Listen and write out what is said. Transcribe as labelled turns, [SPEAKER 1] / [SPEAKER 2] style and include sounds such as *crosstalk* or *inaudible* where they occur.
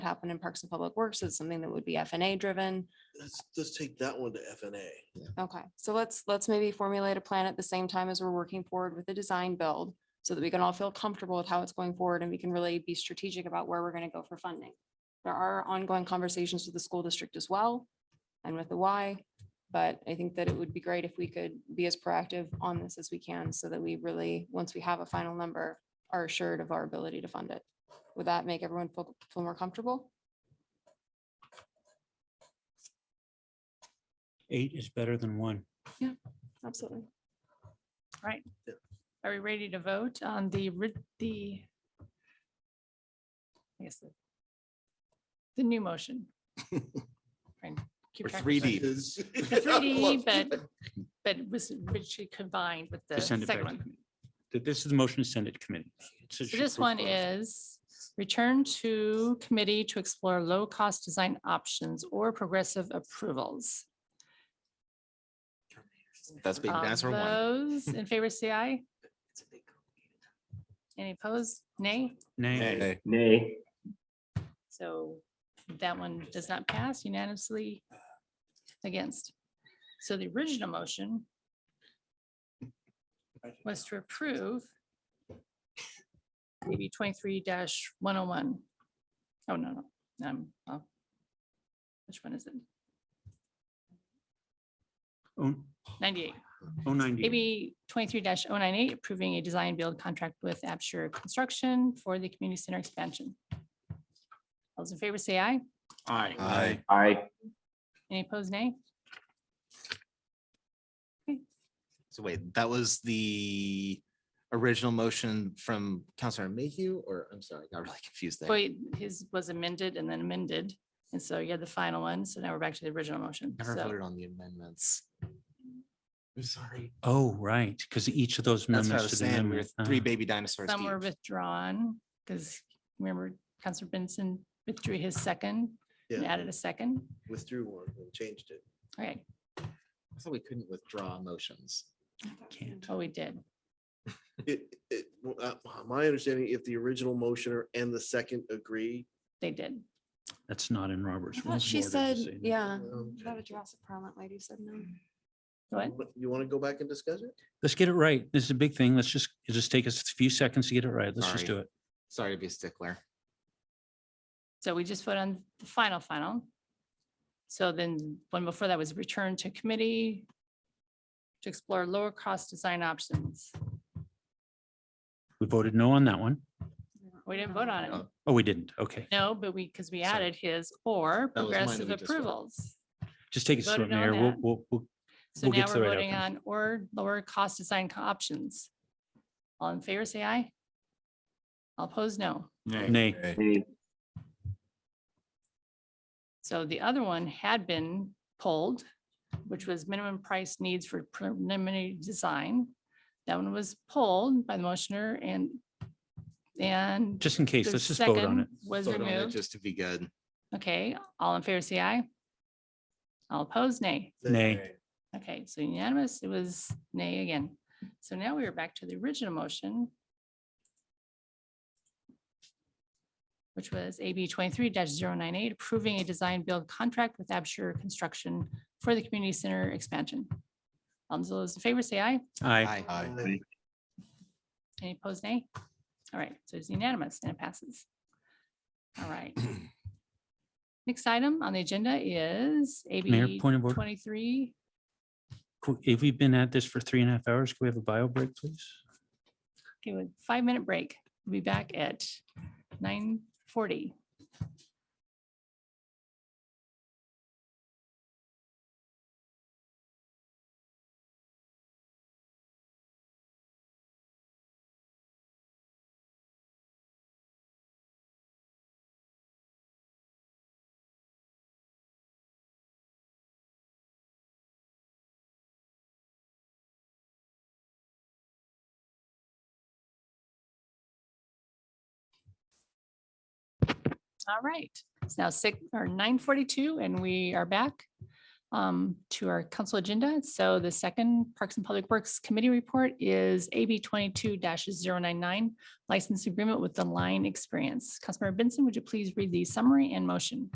[SPEAKER 1] happen in Parks and Public Works. It's something that would be FNA driven.
[SPEAKER 2] Let's, let's take that one to FNA.
[SPEAKER 1] Okay, so let's, let's maybe formulate a plan at the same time as we're working forward with the design build so that we can all feel comfortable with how it's going forward and we can really be strategic about where we're going to go for funding. There are ongoing conversations with the school district as well and with the Y. But I think that it would be great if we could be as proactive on this as we can so that we really, once we have a final number, are assured of our ability to fund it. Would that make everyone feel, feel more comfortable?
[SPEAKER 3] Eight is better than one.
[SPEAKER 1] Absolutely.
[SPEAKER 4] Right. Are we ready to vote on the, ri- the? I guess the- The new motion. Trying to keep
[SPEAKER 5] Or
[SPEAKER 4] track of
[SPEAKER 2] *laughs*
[SPEAKER 5] 3D.
[SPEAKER 4] stuff. *laughs* The 3D, but, but it was richly combined with the
[SPEAKER 3] To send
[SPEAKER 4] second
[SPEAKER 3] it back. to
[SPEAKER 4] one.
[SPEAKER 3] committee. Th- This is the motion to send it to committee.
[SPEAKER 4] So this one is return to committee to explore low-cost design options or progressive approvals.
[SPEAKER 5] That's big.
[SPEAKER 4] All
[SPEAKER 5] That's our one.
[SPEAKER 4] Those in favor, say aye. Any opposed? Nay?
[SPEAKER 3] Nay.
[SPEAKER 5] Nay.
[SPEAKER 6] Nay.
[SPEAKER 4] So that one does not pass unanimously against. So the original motion was to approve maybe twenty-three one oh one. Oh, no, no, um, oh. Which one is it?
[SPEAKER 3] Oh,
[SPEAKER 4] Ninety-eight,
[SPEAKER 3] oh, ninety.
[SPEAKER 4] maybe twenty-three 98 approving a design build contract with Absher Construction for the community center expansion. All Those in favor say aye.
[SPEAKER 3] Aye.
[SPEAKER 5] Aye.
[SPEAKER 6] Aye.
[SPEAKER 4] Any opposed, nay?
[SPEAKER 5] So wait, that was the original motion from Counselor Mayhew, or I'm sorry, I got really confused there.
[SPEAKER 4] Wait, his was amended and then amended. And so you had the final one. So now we're back to the original motion.
[SPEAKER 5] Never
[SPEAKER 4] So
[SPEAKER 5] voted on the amendments. I'm sorry.
[SPEAKER 3] Oh, right, because each of those
[SPEAKER 5] That's what I
[SPEAKER 3] amendments. to
[SPEAKER 5] was
[SPEAKER 3] the
[SPEAKER 5] saying. We were
[SPEAKER 3] amendment-
[SPEAKER 5] three
[SPEAKER 3] ah,
[SPEAKER 5] baby dinosaurs.
[SPEAKER 4] some were
[SPEAKER 5] deep.
[SPEAKER 4] withdrawn because remember Counselor Benson withdrew his second
[SPEAKER 2] Yeah.
[SPEAKER 4] and added a second.
[SPEAKER 2] Withdrew one and changed it.
[SPEAKER 4] Okay,
[SPEAKER 5] I thought we couldn't withdraw motions.
[SPEAKER 3] Can't.
[SPEAKER 4] oh, we did.
[SPEAKER 2] It, it, well, uh, my understanding, if the original motioner and the second agree.
[SPEAKER 4] They did.
[SPEAKER 3] That's not in Robert's.
[SPEAKER 1] I
[SPEAKER 3] rules
[SPEAKER 1] thought
[SPEAKER 3] of
[SPEAKER 1] she
[SPEAKER 3] order to
[SPEAKER 1] said,
[SPEAKER 3] say that.
[SPEAKER 4] Uh,
[SPEAKER 1] yeah.
[SPEAKER 2] um,
[SPEAKER 1] I thought a Jurassic Parliament lady said no.
[SPEAKER 4] What?
[SPEAKER 2] You want to go back and discuss it?
[SPEAKER 3] Let's get it right. This is a big thing. Let's just, it just take us a few seconds to get it right. Let's just
[SPEAKER 5] Sorry.
[SPEAKER 3] do it.
[SPEAKER 5] Sorry to be a stickler.
[SPEAKER 4] So we just voted on the final, final. So then one before that was returned to committee to explore lower cost design options.
[SPEAKER 3] We voted no on that one.
[SPEAKER 4] We didn't vote on it.
[SPEAKER 5] Oh.
[SPEAKER 3] Oh, we didn't. Okay.
[SPEAKER 4] No, but we, because we
[SPEAKER 5] Sorry.
[SPEAKER 4] added his or
[SPEAKER 5] That was
[SPEAKER 4] progressive
[SPEAKER 5] mine that we just voted.
[SPEAKER 4] approvals.
[SPEAKER 3] Just take it
[SPEAKER 4] voted
[SPEAKER 3] slow,
[SPEAKER 4] on
[SPEAKER 3] Mayor. We'll,
[SPEAKER 4] that.
[SPEAKER 3] we'll, we'll-
[SPEAKER 4] So
[SPEAKER 3] We'll get
[SPEAKER 4] now
[SPEAKER 3] to the
[SPEAKER 4] we're
[SPEAKER 3] right
[SPEAKER 4] voting
[SPEAKER 3] outcome.
[SPEAKER 4] on or lower cost design co- options. All in favor, say aye. All opposed, no.
[SPEAKER 3] nay.
[SPEAKER 6] Nay.
[SPEAKER 4] So the other one had been pulled, which was minimum price needs for preliminary design. That one was pulled by the motioner and, and
[SPEAKER 3] Just in case,
[SPEAKER 4] the
[SPEAKER 3] let's just vote on
[SPEAKER 4] second
[SPEAKER 3] it.
[SPEAKER 4] was
[SPEAKER 5] Vote on it
[SPEAKER 4] removed.
[SPEAKER 5] Just to be good.
[SPEAKER 4] Okay, all in favor, say aye. All opposed, nay.
[SPEAKER 2] Then-
[SPEAKER 3] Nay.
[SPEAKER 4] Okay, so unanimous, it was nay again. So now we are back to the original motion. Which was AB twenty-three 98 approving a design build contract with Absher Construction for the community center expansion. All those in favor say aye.
[SPEAKER 3] Aye.
[SPEAKER 5] Aye.
[SPEAKER 2] Aye.
[SPEAKER 4] Any opposed, nay? All right, so it's unanimous and it passes. All right. Next item on the agenda is AB
[SPEAKER 3] point of order.
[SPEAKER 4] twenty-three.
[SPEAKER 3] Cool. If we've been at this for three and a half hours, can we have a bio break, please?
[SPEAKER 4] Okay, with five minute break. We'll be back at nine forty. All right, it's now six or nine forty-two and we are back. um, to our council agenda. So the second Parks and Public Works Committee report is AB twenty-two 99 license agreement with the Line Experience. Councilmember Benson, would you please read the summary and motion?